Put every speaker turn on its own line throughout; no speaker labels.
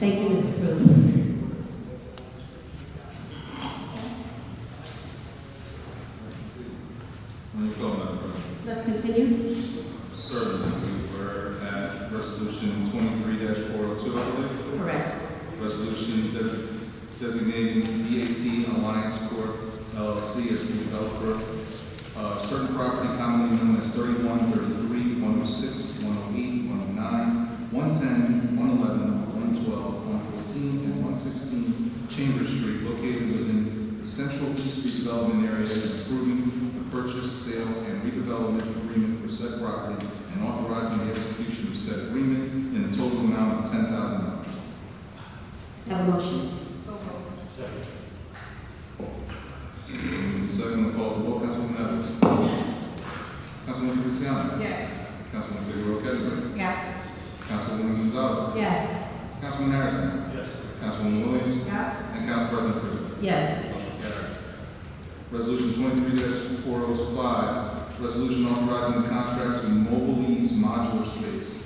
Thank you, Mr. Cruz.
On the floor, Madam President.
Let's continue.
Certainly, we were at resolution twenty-three four oh two, I believe.
Correct.
Resolution des- designating BAT Alliance Corp. LLC as the developer of certain property commonly known as 31, oh 33, 106, 108, 109, 110, 111, 112, 113, 114, 115, 116, 117, 118, 119, 120, 121, 122, 123, 124, 125, 126, 127, 128, 129, 130, 131, 132, 133, 134, 135, 136, 137, 138, 139, 140, 141, 142, 143, 144, 145, 146, 147, 148, 149, 150, 151, 152, 153, 154, 155, 156, 157, 158, 159, 160, 161, 162, 163, 164, 165, 166, 167, 168, 169, 170, 171, 172, 173, 174, 175, 176, 177, 178, 179, 180, 181, 182, 183, 184, 185, 186, 187, 188, 189, 190, 191, 192, 193, 194, 195, 196, 197, 198, 199, 100, 101, 1 114 and 116 Chambers Street located within the Central Street Development Area and approving the purchase, sale, and redevelopment agreement for said property and authorizing the execution of said agreement in a total amount of $10,000.
Have a motion.
So moved.
Second, call the roll, Councilwoman Evans. Councilwoman Feliciano.
Yes.
Councilwoman Figueroa Gettleman.
Yes.
Councilwoman Gonzalez.
Yes.
Councilwoman Harrison.
Yes.
Councilwoman Williams.
Yes.
And Council President Prisco.
Yes.
Motion carried. Resolution twenty-three four oh five, resolution authorizing the contract to mobile lease modular space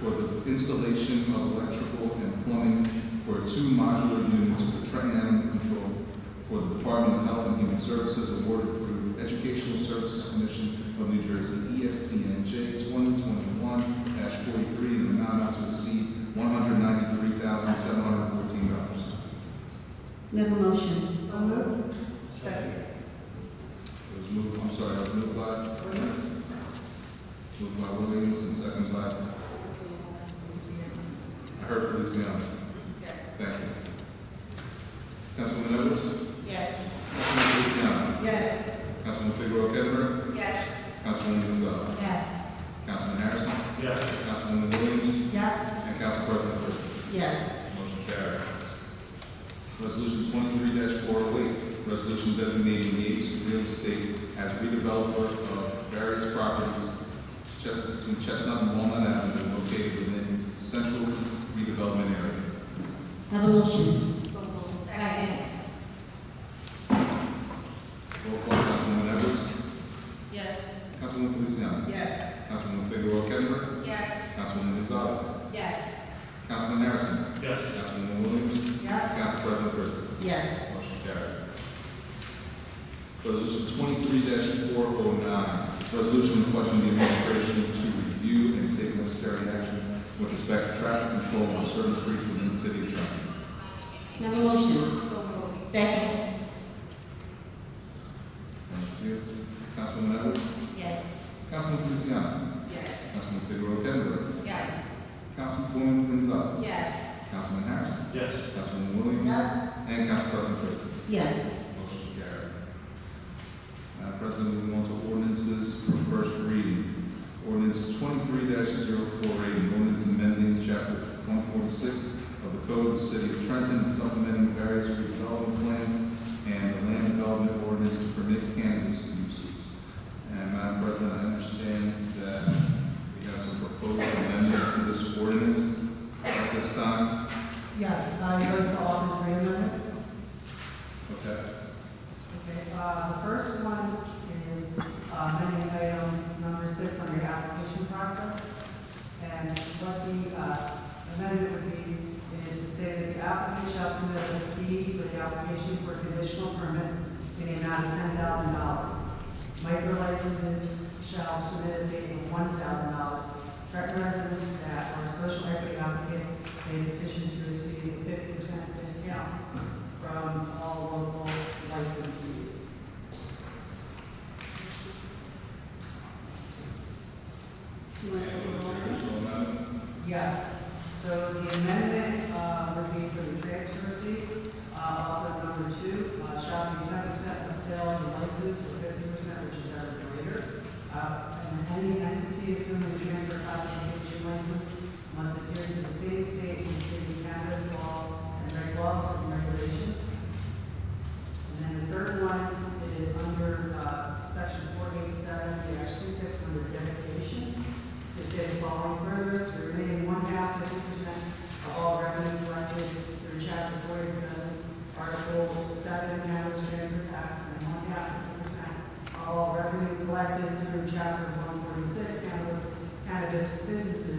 for the installation of electrical and plumbing for two modular units for Trenton Animal Control for the Department of Health and Human Services awarded through Educational Services Commission of New Jersey, E ESCNJ twenty twenty-one forty-three, in an amount not to exceed one hundred ninety-three thousand seven hundred fourteen dollars.
May I have a motion.
So moved. Second.
It was moved, I'm sorry, it was moved by,
Williams.
moved by Williams and second by, I heard Feliciano. Thank you. Councilwoman Edwards,
Yes.
Councilwoman Feliciano,
Yes.
Councilwoman Figueroa Gettler,
Yes.
Councilwoman Gonzalez,
Yes.
Councilman Harrison,
Yes.
Councilwoman Williams,
Yes.
and Council President Britton.
Yes.
Motion carried. Resolution twenty-three four oh eight, resolution designating Yates Real Estate as redeveloper of various properties Ches- between Chestnut and Walnut Avenue located within Central East redevelopment area.
Have a motion.
So moved.
Roll call, Councilwoman Edwards.
Yes.
Councilwoman Feliciano.
Yes.
Councilwoman Figueroa Gettler.
Yes.
Councilwoman Gonzalez.
Yes.
Councilman Harrison.
Yes.
Councilwoman Williams.
Yes.
Council President Britton.
Yes.
Motion carried. Resolution twenty-three four oh nine, resolution requesting the administration to review and take necessary action with respect to traffic control on certain streets within the city of Trenton.
May I have a motion.
So moved.
Second.
Thank you. Councilwoman Edwards?
Yes.
Councilwoman Feliciano?
Yes.
Councilman Figueroa Gettler?
Yes.
Councilwoman Gonzalez?
Yes.
Councilman Harrison?
Yes.
Councilwoman Williams?
Yes.
And Council President Britton?
Yes.
Motion carried. Madam President, moving on to ordinances for first reading. Ordinance twenty-three 48 an ordinance amending chapter one forty-six of the Code of the City of Trenton, and supplementing various redevelopment plans and the land development ordinance to permit cannabis uses. And Madam President, I understand that we have some proposed amendments to this ordinance at this time.
Yes, I go to all the three amendments.
What's that?
Okay, uh, the first one is uh, amending item number six on your application process. And what the uh, amendment would be is to say that the applicant shall submit a fee for the application for conditional permit in the amount of ten thousand dollars. Micro licenses shall submit a fee of one thousand dollars. Track residents that are social equity applicant may petition to receive a fifty percent discount from all local licensees.
You want to have a motion?
Additional amendments?
Yes, so the amendment uh, would be for the transfer fee. Uh, Also, number two, uh, shall be ten percent of sale of the license or fifty percent, which is ever greater. Uh, And any entity assuming the transfer classification license must adhere to the same state and city cannabis law and reg laws and regulations. And then the third one is under uh, section four eight seven, two six, under dedication. To say the following further, to remain one half fifty percent of all revenue collected through chapter four eight seven, article seven, cannabis transfer tax, and one half fifty percent of all revenue collected through chapter one forty-six, cannabis business